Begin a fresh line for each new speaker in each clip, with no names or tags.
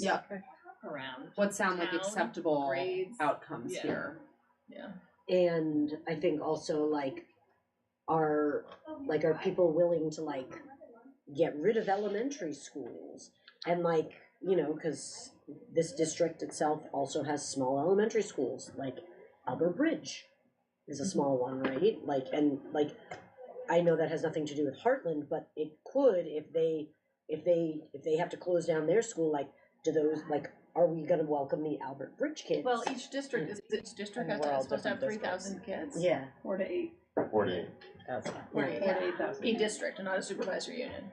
Yeah.
around.
What sound like
Town,
acceptable
grades,
outcomes
yeah.
here?
And I think also like, are, like, are people willing to like get rid of elementary schools? And like, you know, cause this district itself also has small elementary schools, like Upper Bridge is a small one, right? Like, and like, I know that has nothing to do with Heartland, but it could if they, if they, if they have to close down their school, like, do those, like, are we gonna welcome the Albert Bridge kids?
Well, each district is each district
And
has
we're all
supposed to have three
different
thousand kids.
Yeah.
Four to eight.
Forty.
Four to eight.
Yeah.
A district, not a supervisory union.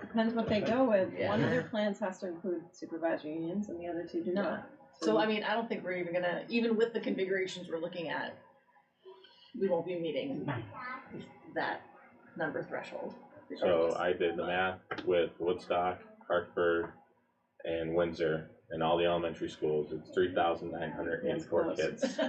Depends what they go with. One
Yeah.
of their plans has to include supervisory unions and the other two do
No.
not.
So I mean, I don't think we're even gonna, even with the configurations we're looking at, we won't be meeting that number threshold.
So I did the math with Woodstock, Hartford, and Windsor, and all the elementary schools. It's three thousand nine hundred eighty-four
That's
kids,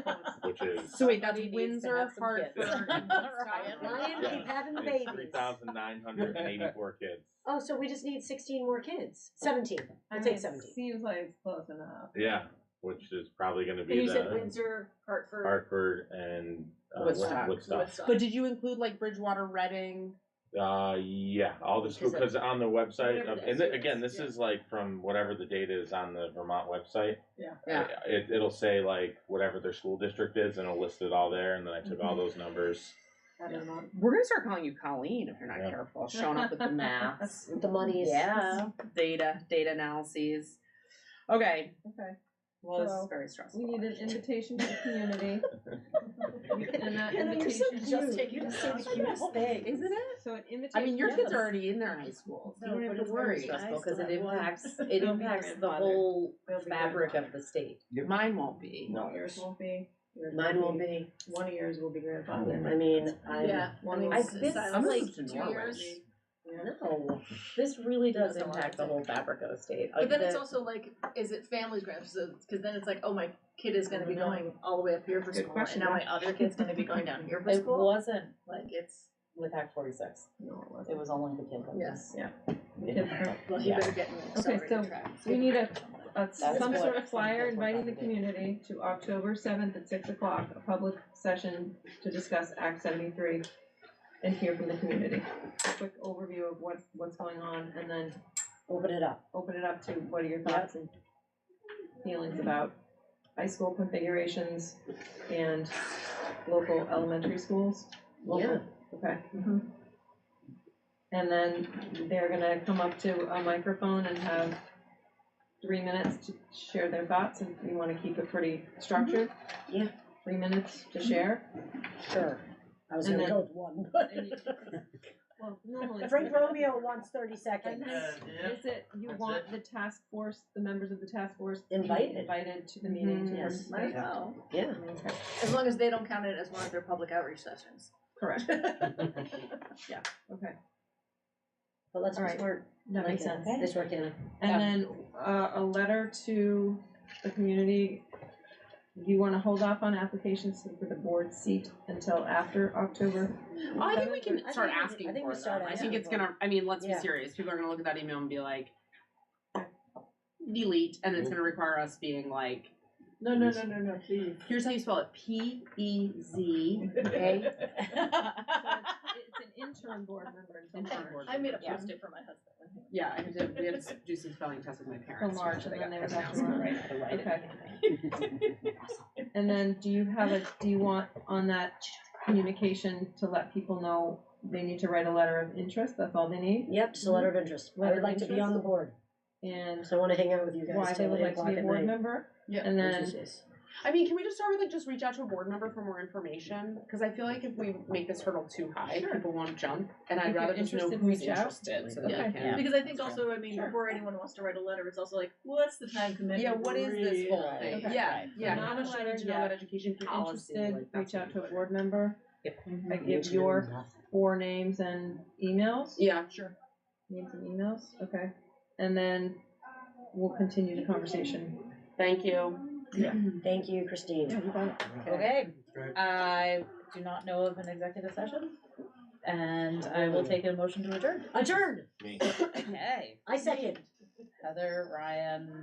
which is
So wait, that's
Somebody needs to
Windsor,
have some kids.
Hartford, and
Ryan.
Woodstock?
Ryan keep having the
three
babies.
thousand nine hundred eighty-four kids.
Oh, so we just need sixteen more kids. Seventeen.
I
We'll
mean,
take seventeen.
Seems like it's close enough.
Yeah, which is probably gonna
And
be
you said
the
Windsor, Hartford,
Hartford and uh,
Woodstock.
Woodstock.
Woodstock.
But did you include like Bridgewater, Reading?
Uh, yeah, all the school,
Is it-
because on the website,
Whatever
of-
the
and th-
SU is,
again, this
yeah.
is like from whatever the data is on the Vermont website.
Yeah.
Yeah.
It, it'll say like whatever their school district is and it'll list it all there, and then I took all those numbers.
I don't know.
We're gonna start calling you Colleen if you're not
Yeah.
careful. Showing up with the maths,
The money is.
yeah, data, data analyses. Okay,
Okay.
well, this
So,
is very stressful.
We need an invitation to the community. and that
Hannah, you're so
invitation
cute.
take it
You're
as
so
something
cute
else.
thing.
Isn't it?
So an invitation.
I mean, your kids
yes.
are already in their high schools. You
No,
don't
but
have
it's
to
very
worry.
stressful because it
have one.
impacts it
They'll be
impacts the
grandfathered.
whole
They'll be
fabric
grandfathered.
of the state.
Mine won't be.
No, yours won't be. Yours
Mine will be.
One of yours will be grandfathered.
I mean, I'm.
Yeah,
I
one
mean,
was
I've been-
decided
I'm
like
moved to
two
Norway.
years.
No, this really does
That's a lot
impact the
of
whole
things.
fabric of the state.
But
Like,
then it's
the-
also like, is it family grants? Because then it's like, oh, my kid is going to be going all the way up here for
Mm-hmm. Good
school,
question.
and now my other kid's going to be going down here for
it
school.
wasn't
Like it's
with Act Forty Six.
No, it
It
wasn't.
was only the kid that
Yeah.
was.
Yeah.
Yeah.
well, he
Yeah.
better get in the
Okay,
accelerated
so
track.
We need a, a
That's
some
what-
sort of flyer
that's what
inviting the
Bobby did.
community to October seventh at six o'clock, a public session to discuss Act seventy-three and hear from the community. A Quick overview of what, what's going on and then
Open it up.
open it up to what are your thoughts and feelings about high school configurations and local elementary schools? Local, Okay.
Mhm.
And then they're gonna come up to a microphone and have three minutes to share their thoughts, and we wanna keep it pretty structured.
Yeah.
Three minutes to share.
Sure. I was
And
gonna
then-
go with one, but.
And you- Well, normally.
Frank Romeo wants thirty
And
seconds.
then, is it, you
That's
want the task force, the members of the task force to be
Invited. Mm-hmm.
Invited to the meeting
Mhm.
to
Yes.
Might
participate.
as well.
Yeah.
As long as they don't count it as one of their public outreach sessions.
Correct, okay,
But let's
All
be
right.
smart.
that makes
Like,
sense.
Nice work, Hannah.
And then, uh, a letter to the community, you wanna hold off on applications for the board seat until after October?
Oh, I think we
I
can
think
start
we- I
asking
think
for
we start
them. I
asking
think it's
for
gonna. I mean, let's
Yeah.
be serious. People are gonna look at that email and be like, delete, and it's gonna require us being like,
No,
no,
no, no, please.
here's how you spell it: P E Z A.
It's an interim board member until
Interim board
March.
I made a
Yeah.
post-it for my husband.
Yeah, I had to, we had to do some spelling tests with my parents.
large,
actually,
and
they got
then there was
pronounced
after
right.
Right, the right.
Okay. And then, do you have a, do you want on that communication to let people know they need to write a letter of interest, that's all they need?
Yep, just a letter of interest. I
Letter
would
of
like to be
interest?
on the board,
And
so I wanna hang out with you
why
guys
they
till
would
eight
like to
o'clock
be a
at
board
night.
member?
Yeah.
And
Which
then,
is-
I mean, can we just start with like just reach out to a board member for more information? Because I feel like if we make this hurdle too high,
Sure.
people won't jump, and I'd
If you're
rather just know
interested,
who's
reach out.
interested so that
Yeah.
we can.
Because I think
Sure.
also, I mean,
Sure.
before anyone wants to write a letter, it's also like, what's the time commitment?
Yeah, what is this
Right.
whole thing?
Okay.
Yeah, yeah.
Not
People
a
should
letter
need to know
yet.
about education
if you're
policy.
interested,
like, that's
reach out
what
to a
we do. Mm-hmm.
board member, I give your four names and emails,
Yeah, sure.
names and emails, okay? And then we'll continue the conversation.
Thank you.
Thank you, Christine.
Okay, I do not know of an executive session, and I will take a motion to adjourn.
Adjourned.
Me.
Okay.
I second.
Heather, Ryan,